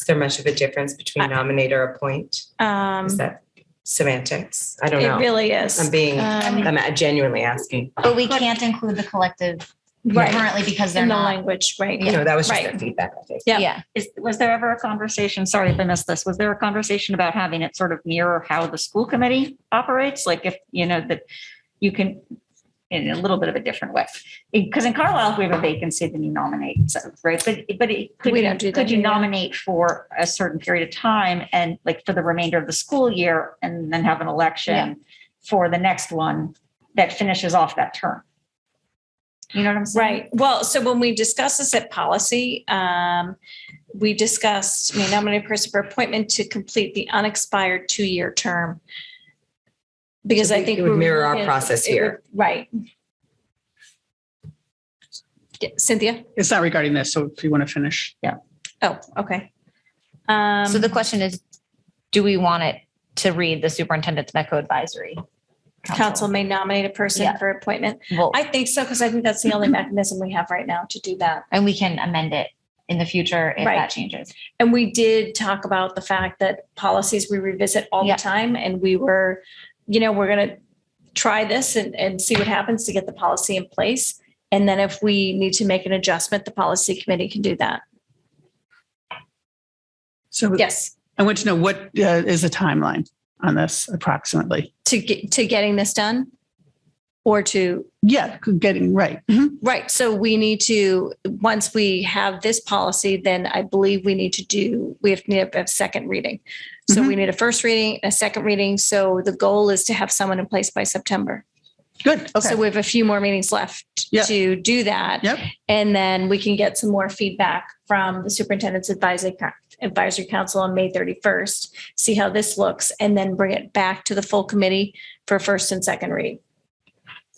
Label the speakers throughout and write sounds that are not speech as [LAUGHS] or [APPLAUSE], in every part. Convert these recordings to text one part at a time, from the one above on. Speaker 1: Is there much of a difference between nominate or appoint?
Speaker 2: Um,
Speaker 1: Is that semantics? I don't
Speaker 2: it
Speaker 1: know.
Speaker 2: really is.
Speaker 1: I'm being-
Speaker 2: Um,
Speaker 1: I'm genuinely asking.
Speaker 3: But we can't include the collective
Speaker 2: right
Speaker 3: currently because they're
Speaker 2: in the
Speaker 3: not.
Speaker 2: language, right?
Speaker 1: You know, that was just
Speaker 2: Right.
Speaker 1: their feedback, I think.
Speaker 2: Yeah.
Speaker 4: Is, was there ever a conversation, sorry if I missed this, was there a conversation about having it sort of mirror how the school committee operates? Like if, you know, that you can, in a little bit of a different way. Because in Carlisle, if we have a vacancy, then you nominate, so, right? But, but it- could
Speaker 2: We
Speaker 4: you,
Speaker 2: don't do that
Speaker 4: could you
Speaker 2: here, yeah.
Speaker 4: nominate for a certain period of time and like for the remainder of the school year and then have an election for the next one that finishes off that term? You know what I'm saying?
Speaker 2: Right. Well, so when we discussed this at policy, um, we discussed, we nominated a person for appointment to complete the unexpired two-year term. Because I think.
Speaker 1: It would
Speaker 2: we were
Speaker 1: mirror our
Speaker 2: looking-
Speaker 1: process
Speaker 2: it would-
Speaker 1: here.
Speaker 2: Right. Yeah, Cynthia?
Speaker 5: It's not regarding this, so if you want to finish.
Speaker 2: Oh, okay. Um,
Speaker 3: So the question is, do we want it to read the superintendent's MECO advisory?
Speaker 2: council may nominate a person
Speaker 3: Yeah.
Speaker 2: for appointment.
Speaker 3: vote?
Speaker 2: I think so, because I think that's the only mechanism we have right now to do that.
Speaker 3: And we can amend it in the future if
Speaker 2: Right.
Speaker 3: that changes.
Speaker 2: And we did talk about the fact that policies we revisit all
Speaker 3: Yeah.
Speaker 2: the time and we were, you know, we're going to try this and, and see what happens to get the policy in place. And then if we need to make an adjustment, the policy committee can do that.
Speaker 5: So
Speaker 2: Yes,
Speaker 5: I want to know what uh, is the timeline on this approximately?
Speaker 2: to get, to getting this done or to
Speaker 5: Yeah, getting right. Mhm.
Speaker 2: Right. So we need to, once we have this policy, then I believe we need to do, we have to have a second reading. So we need a first reading, a second reading. So the goal is to have someone in place by September.
Speaker 5: Good. Okay.
Speaker 2: So we have a few more meetings left
Speaker 5: Yeah.
Speaker 2: to do that.
Speaker 5: Yep.
Speaker 2: And then we can get some more feedback from the superintendent's advisory, advisory council on May 31st, see how this looks, and then bring it back to the full committee for first and second read.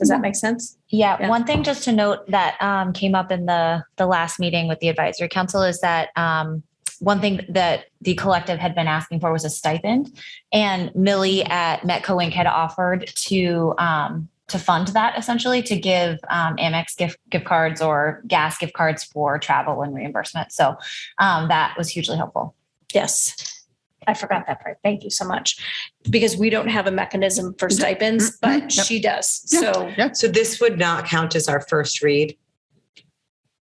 Speaker 2: Does that make sense? Yeah.
Speaker 3: Yeah, one thing just to note that um, came up in the, the last meeting with the advisory council is that um, one thing that the collective had been asking for was a stipend. And Millie at Metco Inc. had offered to, um, to fund that essentially, to give um, Amex gift, gift cards or gas gift cards for travel and reimbursement. So um, that was hugely helpful.
Speaker 2: Yes. I forgot that part. Thank you so much. Because we don't have a mechanism for stipends, but
Speaker 5: Mhm. Yep.
Speaker 2: she does. So
Speaker 5: Yeah.
Speaker 1: So this would not count as our first read?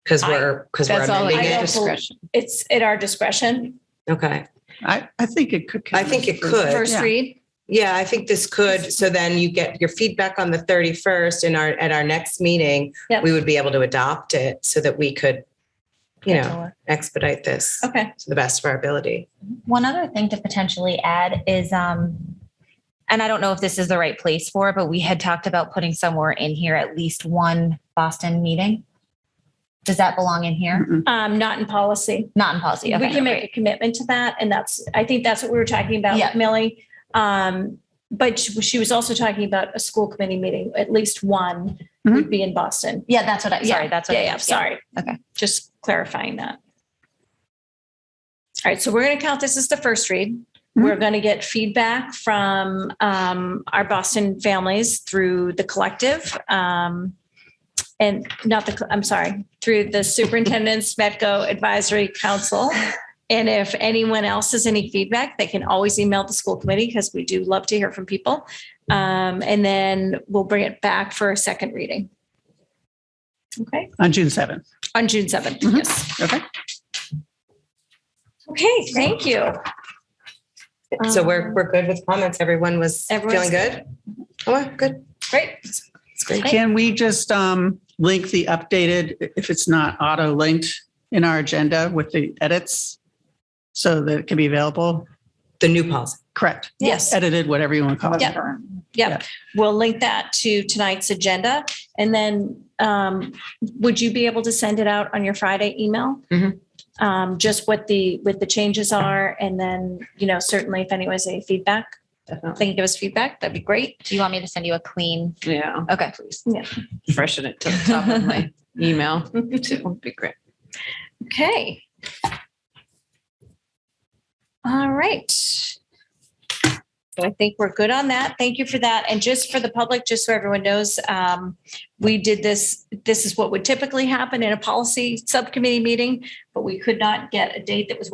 Speaker 1: Because we're, because we're
Speaker 6: That's all
Speaker 1: amending
Speaker 6: I
Speaker 2: I
Speaker 6: get
Speaker 1: it?
Speaker 2: also-
Speaker 6: discretion.
Speaker 2: it's at our discretion.
Speaker 1: Okay.
Speaker 5: I, I think it could.
Speaker 1: I think it could.
Speaker 2: First
Speaker 5: Yeah.
Speaker 2: read.
Speaker 1: Yeah, I think this could, so then you get your feedback on the 31st and our, at our next meeting,
Speaker 2: Yep.
Speaker 1: we would be able to adopt it so that we could, you know, expedite this
Speaker 2: Okay.
Speaker 1: to the best of our ability.
Speaker 3: One other thing to potentially add is, um, and I don't know if this is the right place for, it, but we had talked about putting somewhere in here at least one Boston meeting. Does that belong in here?
Speaker 5: Mhm.
Speaker 2: Um, not in policy.
Speaker 3: Not in policy.
Speaker 2: We
Speaker 3: Okay.
Speaker 2: can make a commitment to that. And that's, I think that's what we were talking about with
Speaker 3: Yeah.
Speaker 2: Millie. Um, but she she was also talking about a school committee meeting, at least one
Speaker 3: Mm-hmm.
Speaker 2: would be in Boston.
Speaker 3: Yeah, that's what I,
Speaker 2: Yeah.
Speaker 3: sorry, that's what. I
Speaker 2: Yeah, yeah,
Speaker 3: meant.
Speaker 2: sorry.
Speaker 3: Okay.
Speaker 2: Just clarifying that. All right, so we're going to count this as the first read.
Speaker 3: Mm-hmm.
Speaker 5: Mhm.
Speaker 2: We're going to get feedback from um, our Boston families through the collective. um, And not the, I'm sorry, through the
Speaker 3: [LAUGHS]
Speaker 2: superintendent's Metco Advisory Council. And if anyone else has any feedback, they can always email the school committee because we do love to hear from people. Um, And then we'll bring it back for a second reading. Okay?
Speaker 5: On June 7th.
Speaker 2: On June seventh,
Speaker 5: Mhm.
Speaker 2: yes.
Speaker 5: Okay.
Speaker 2: Okay, thank you.
Speaker 1: So we're,
Speaker 2: Um,
Speaker 1: we're good with comments. Everyone was
Speaker 2: Everyone's
Speaker 1: feeling good? Oh, good.
Speaker 2: Great.
Speaker 1: It's great.
Speaker 5: Can we just um, link the updated, if it's not auto linked in our agenda with the edits? So that it can be available?
Speaker 1: The new policy.
Speaker 5: Correct.
Speaker 2: Yes,
Speaker 5: Edited, whatever you want to call it.
Speaker 2: Yeah. yep. We'll link that to tonight's agenda. And then um, would you be able to send it out on your Friday email?
Speaker 1: Mhm.
Speaker 2: Um, Just what the, what the changes are, and then, you know, certainly if anyone has any feedback,
Speaker 1: Definitely.
Speaker 2: they can give us feedback. That'd be great.
Speaker 3: Do you want me to send you a clean?
Speaker 6: Yeah,
Speaker 3: Okay.
Speaker 6: freshen it to the top of
Speaker 3: [LAUGHS]
Speaker 6: my email too. Would Be great.
Speaker 2: Okay. All right. So I think we're good on that. Thank you for that. And just for the public, just so everyone knows, um, we did this, this is what would typically happen in a policy subcommittee meeting, but we could not get a date that was